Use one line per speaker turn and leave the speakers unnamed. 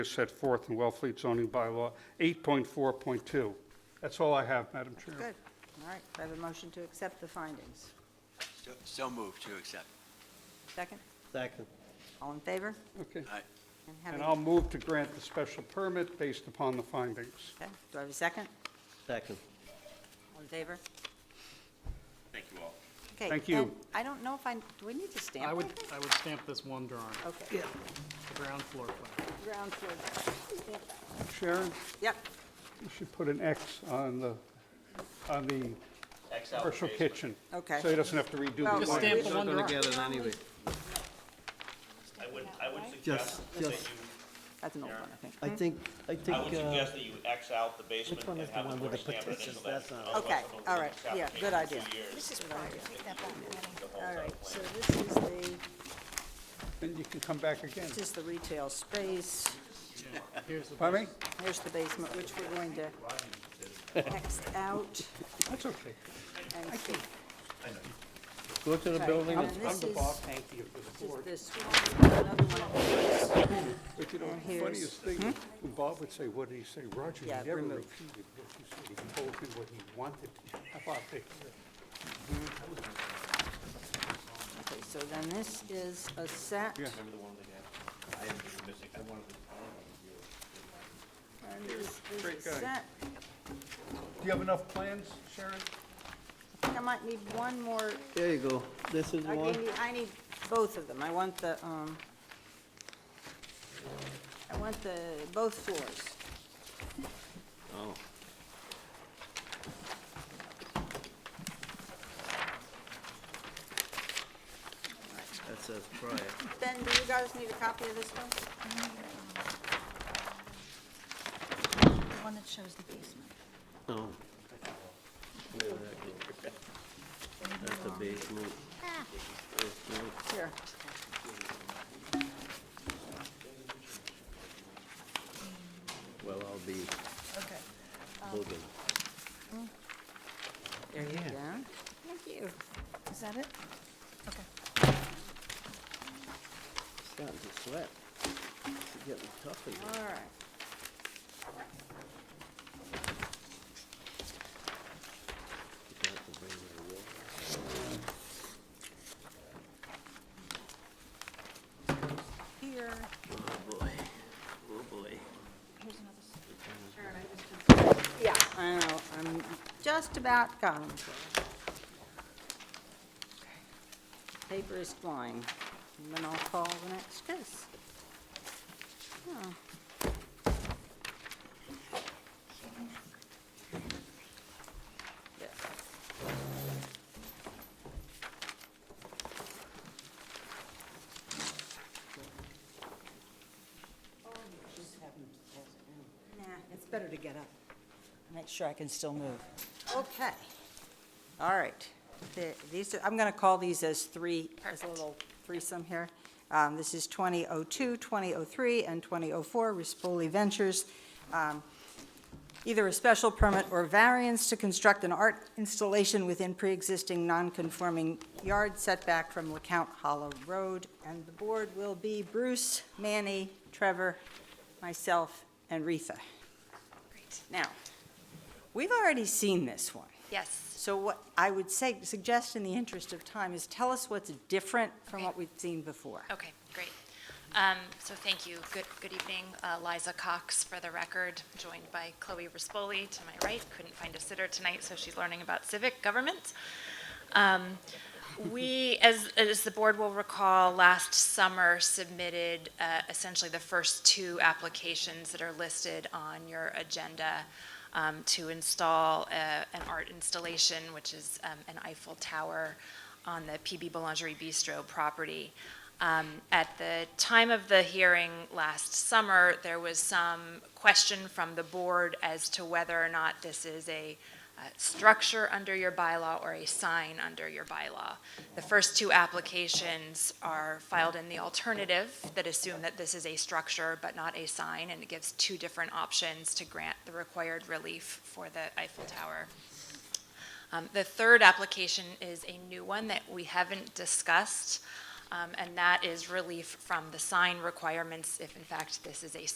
is set forth in Wellfleet zoning bylaw 8.4.2. That's all I have, Madam Chair.
Good, all right. Do I have a motion to accept the findings?
So- So moved to accept.
Second?
Second.
All in favor?
Okay.
Aye.
And
And
having-
I'll move to grant the special permit based upon the findings.
Okay. Do I have a second?
Second.
All in favor?
Thank you all.
Okay,
Thank you.
and I don't know if I, do we need to stamp?
I would,
it?
I would stamp this one drawing,
Okay.
the ground floor plan.
Ground floor.
Sharon,
Yep,
you should put an X on the, on the commercial kitchen.
Okay.
So he doesn't have to
Well,
redo the
Just
plan.
stamp the one
Gonna
drawing.
get it anyway.
I would, I would
Just,
suggest that you,
just,
that's an old one, I think.
I think, I think,
I would
uh,
suggest that you X out the basement
which one
and
is the
have the
one with
board
the
stamp an
petitions?
initial
That's
that.
not,
Okay, all right, yeah, good idea.
This is
All right, so this is the,
Then you can come back again.
this is the retail space.
Here's the
Pardon me?
base-
Here's the basement, which we're going to X out
That's okay.
and keep.
go to the building,
And
it's
I'm
this
the
is,
boss, thank you for the
this
board.
is this one, another one. of these.
But you know,
And
the
here's-
funniest thing, when Bob would say, what did he say? Roger
Hmm? Yeah,
never
remove.
repeated what he said. He told him what he wanted. How about that?
Okay, so then this is a set.
Yeah.
And this
Great
is a
guy.
set.
Do you have enough plans, Sharon?
I think I might need one more,
there you go, this is
I
one,
need, I need both of them. I want the, um, I want the, both floors.
oh, that says prior.
Ben, do you guys need a copy of this one?
The one that shows the basement.
Oh. Yeah, that go. That's a basement. Basement.
Here.
Well, I'll be
Okay.
holding.
There you go. Thank you.
Is that it? Okay.
Starting to sweat. It's getting tough in here.
All right. Here.
Oh, boy. Oh, boy.
Here's another. s-
Yeah, I know, I'm just about gone. Paper is flying, and then I'll call the next case. Oh. Yeah. Nah,
It's better to get up. Make sure I can still move.
Okay. All right. The- These, are- I'm going to call these as three, as a little threesome here. Um, This is 2002, 2003, and 2004, Rispoli Ventures. Um, Either a special permit or variance to construct an art installation within pre-existing non-conforming yard setback from LeCount Hollow Road. And the board will be Bruce, Manny, Trevor, myself, and Retha.
Great.
Now, we've already seen this one.
Yes.
So what I would say, suggest in the interest of time, is tell us what's different from what we've seen before.
Okay, great. Um, So thank you. Good, good evening. Uh, Liza Cox for the record, joined by Chloe Rispoli to my right. Couldn't find a sitter tonight, so she's learning about civic government. Um, We, as, as the board will recall, last summer submitted uh, essentially the first two applications that are listed on your agenda um, to install a- an art installation, which is um, an Eiffel Tower on the PB Boulangerie Bistro property. Um, At the time of the hearing last summer, there was some question from the board as to whether or not this is a uh, structure under your bylaw or a sign under your bylaw. The first two applications are filed in the alternative that assume that this is a structure but not a sign, and it gives two different options to grant the required relief for the Eiffel Tower. Um, The third application is a new one that we haven't discussed, um, and that is relief from the sign requirements if in fact this is a